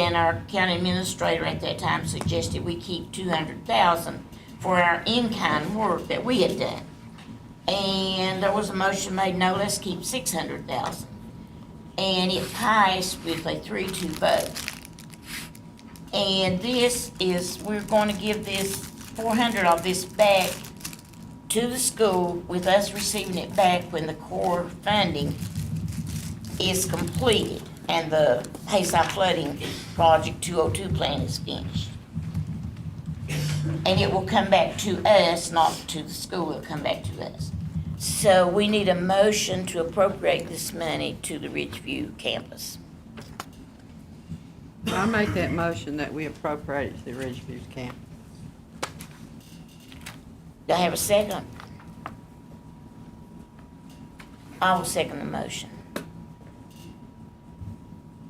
And our county administrator at that time suggested we keep two hundred thousand for our in-kind work that we had done. And there was a motion made, no, let's keep six hundred thousand. And it passed with a three-two vote. And this is, we're gonna give this four hundred of this back to the school with us receiving it back when the core funding is completed and the Hayside flooding project two oh two plan is finished. And it will come back to us, not to the school, it'll come back to us. So we need a motion to appropriate this money to the Ridgeview campus. I make that motion that we appropriate to the Ridgeview camp. Do I have a second? I will second the motion.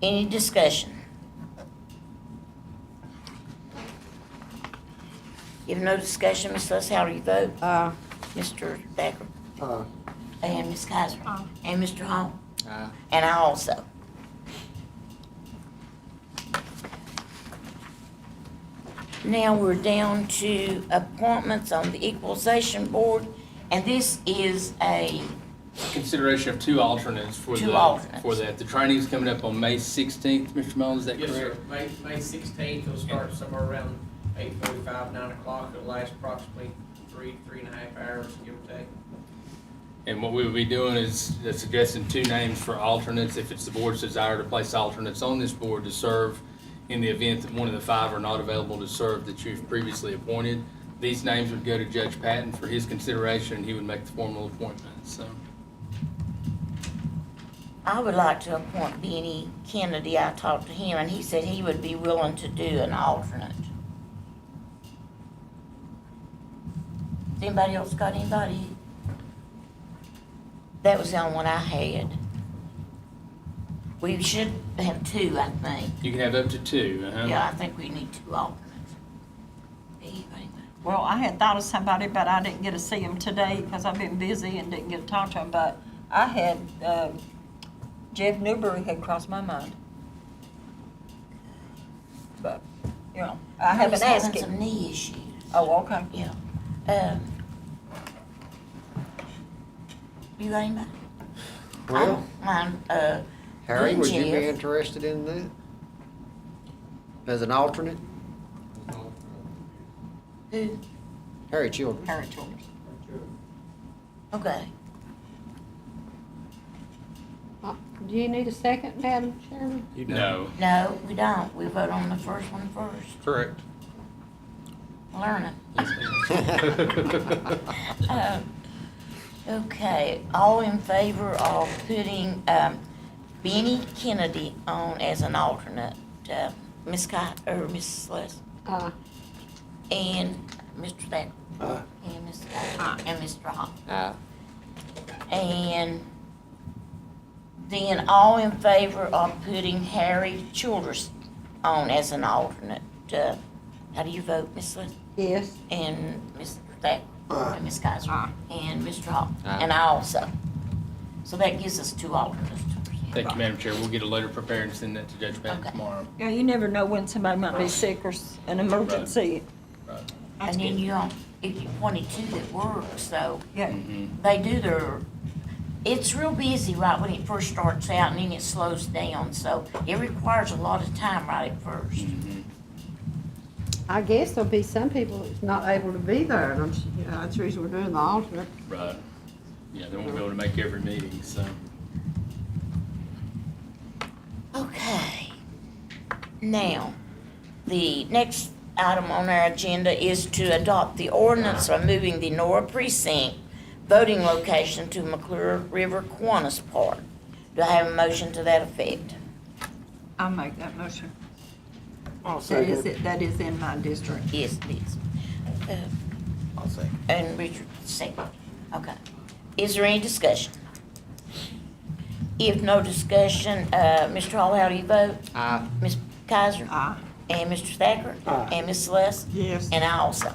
Any discussion? If no discussion, Ms. Lewis, how do you vote? Uh, Mr. Thacker? Aye. And Ms. Kaiser? And Mr. Hall? Aye. And I also. Now we're down to appointments on the equalization board, and this is a, Consideration of two alternates for Two the, alternates. for that. The training's coming up on May 16th, Mr. Mullins, is that Yes, sir. correct? May, May sixteenth, it'll start somewhere around eight forty-five, nine o'clock. It'll last approximately three, three and a half hours, give or take. And what we would be doing is suggesting two names for alternates, if it's the board's desire to place alternates on this board to serve in the event that one of the five are not available to serve that you've previously appointed. These names would go to Judge Patton for his consideration, and he would make the formal appointment, so. I would like to appoint Benny Kennedy. I talked to him, and he said he would be willing to do an alternate. Has Anybody else got anybody? That was the only one I had. We should have two, I think. You can have up to two, uh-huh. Yeah, I think we need two alternates. Anybody? Well, I had thought of somebody, but I didn't get to see him today because I've been busy and didn't get to talk to him. But I had, um, Jeff Newberry had crossed my mind. But, you know, I haven't He's asked having him. some knee issues. Oh, okay. Yeah. Um, You got anybody? Well, I'm, I'm, uh, Harry, would you be Jeff. interested in that? As an alternate? who? Harry Children. Harry Childers. Okay. Uh, Do you need a second, Madam Chairman? No. No, we don't. We vote on the first one first. Correct. Learn it. Um, Okay, all in favor of putting um, Benny Kennedy on as an alternate, uh, Ms. Scott, or Mrs. Les, Uh, and Mr. Thacker, Aye. and Ms. Scott, and Mr. Hall. Aye. And then all in favor of putting Harry Childress on as an alternate, uh, how do you vote, Ms. Les? yes, And Ms. Thack, and Ms. Kaiser, and Mr. Hall, Aye. and I also. So that gives us two alternates to present. Thank you, Madam Chair. We'll get a letter prepared and send that to Judge Patton Okay. tomorrow. Yeah, you never know when somebody might be sick or s- an emergency. Right. And then you, don't- if you wanted two that work, so Yeah. Mm-hmm. they do their, it's real busy right when it first starts out and then it slows down, so it requires a lot of time right at first. Mm-hmm. I guess there'll be some people that's not able to be there, and I'm, s- you know, that's the reason we're doing the alternate. Right. Yeah, they won't be able to make every meeting, so. Okay. Now, the next item on our agenda is to adopt the ordinance removing the Nora precinct voting location to McClure River Kiwanis Park. Do I have a motion to that effect? I'll make that motion. Oh, I'll That second is, it. it. that is in my district. Yes, it is. I'll say. Uh, And Richard second. Okay. Is there any discussion? If no discussion, uh, Mr. Hall, how do you vote? Aye. Ms. Kaiser? Aye. And Mr. Thacker? Aye. And Ms. Celeste? Yes. And I also.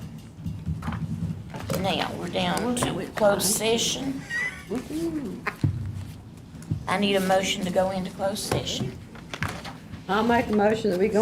Now, we're down to closed session. I need a motion to go into closed session. I'll make a motion that we go